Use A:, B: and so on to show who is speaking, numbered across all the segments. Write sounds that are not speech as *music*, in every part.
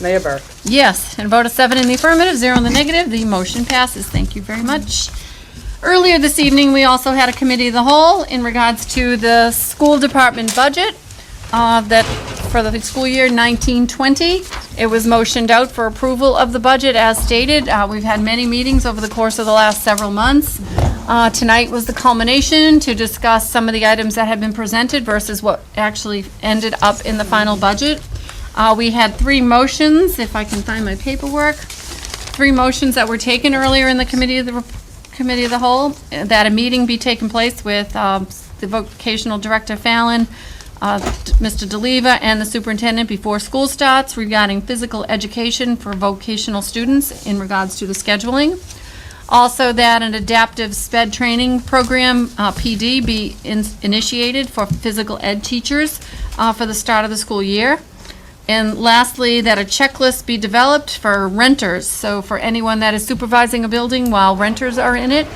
A: Mayor Burke.
B: Yes, and a vote of seven in the affirmative, zero in the negative, the motion passes. Thank you very much. Earlier this evening, we also had a committee of the whole in regards to the school department budget uh, that, for the school year 1920. It was motioned out for approval of the budget as stated. Uh, We've had many meetings over the course of the last several months. Uh, Tonight was the culmination to discuss some of the items that had been presented versus what actually ended up in the final budget. Uh, We had three motions, if I can find my paperwork, three motions that were taken earlier in the committee of the, rep- committee of the whole, uh, that a meeting be taken place with um, the vocational director Fallon, uh, d- Mr. DeLeva, and the superintendent before school starts regarding physical education for vocational students in regards to the scheduling. Also, that an adaptive sped training program, uh, PD, be in- initiated for physical ed teachers uh, for the start of the school year. And lastly, that a checklist be developed for renters, so for anyone that is supervising a building while renters are in it,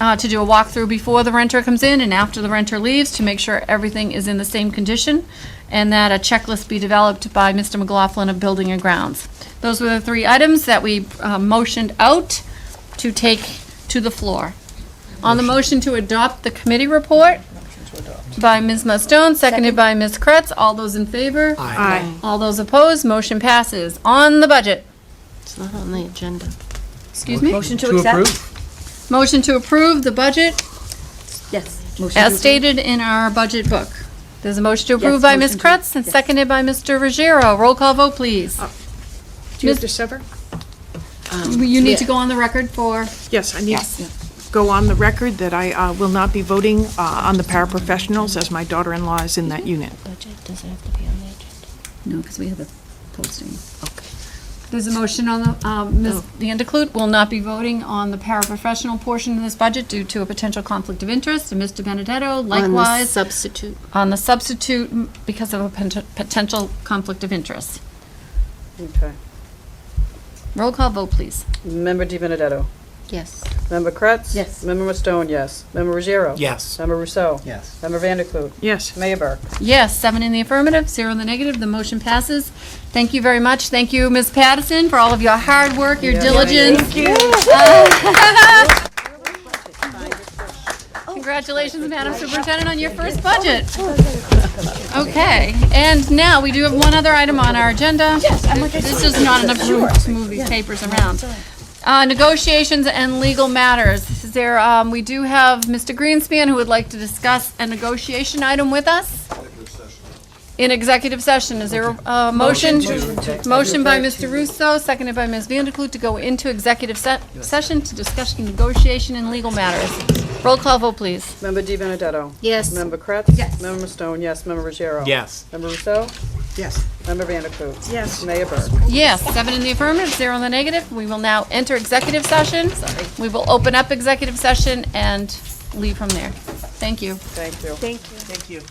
B: uh, to do a walkthrough before the renter comes in and after the renter leaves to make sure everything is in the same condition, and that a checklist be developed by Mr. McLaughlin of Building and Grounds. Those were the three items that we uh, motioned out to take to the floor. On the motion to adopt the committee report by Ms. Mustone, seconded by Ms. Kretz, all those in favor?
A: Aye.
B: All those opposed, motion passes. On the budget,
C: It's not on the agenda.
B: excuse me,
A: Motion to accept?
B: motion to approve the budget
C: Yes.
B: as stated in our budget book. There's a motion to approve
C: Yes,
B: by Ms.
C: motion to-
B: Kretz and seconded by Mr. Ruggiero. Roll call vote, please.
A: Do you have to sever?
B: You need to go on the record for,
A: Yes, I need to go on the record that I uh, will not be voting uh, on the paraprofessionals as my daughter-in-law is in that unit.
C: Budget, does it have to be on the agenda?
B: no, because we have the posting.
C: Okay.
B: There's a motion on the, um, Ms. Vandekloot will not be voting on the paraprofessional portion of this budget due to a potential conflict of interest. And Mr. Benedetto
C: On the
B: likewise.
C: substitute.
B: on the substitute m- because of a pent- potential conflict of interest.
D: Okay.
B: Roll call vote, please.
D: Member Di Benedetto.
C: Yes.
D: Member Kretz?
C: Yes.
D: Member Mustone, yes. Member Ruggiero?
E: Yes.
D: Member Rousseau?
E: Yes.
D: Member Vanderklut?
A: Yes.
D: Mayor Burke?
B: Yes, seven in the affirmative, zero in the negative, the motion passes. Thank you very much. Thank you, Ms. Patterson, for all of your hard work, your diligence. *laughs* Congratulations, Madam Superintendent, on your first budget. Okay, and now we do have one other item on our agenda. This is not enough room to move these papers around. Uh, Negotiations and legal matters. This is There, um, we do have Mr. Greenspan who would like to discuss a negotiation item with us. In executive session, is there a uh, motion? Motion by Mr. Russo, seconded by Ms. Vanderklut to go into executive se- session to discuss negotiation and legal matters. Roll call vote, please.
D: Member Di Benedetto?
C: Yes.
D: Member Kretz? Yes. Member Mustone, yes. Member Ruggiero?
E: Yes.
D: Member Rousseau?
E: Yes.
D: Member Vanderklut?
A: Yes.
D: Mayor Burke?
B: Yes, seven in the affirmative, zero in the negative. We will now enter executive session. We will open up executive session and leave from there. Thank you.
D: Thank you.
E: Thank you.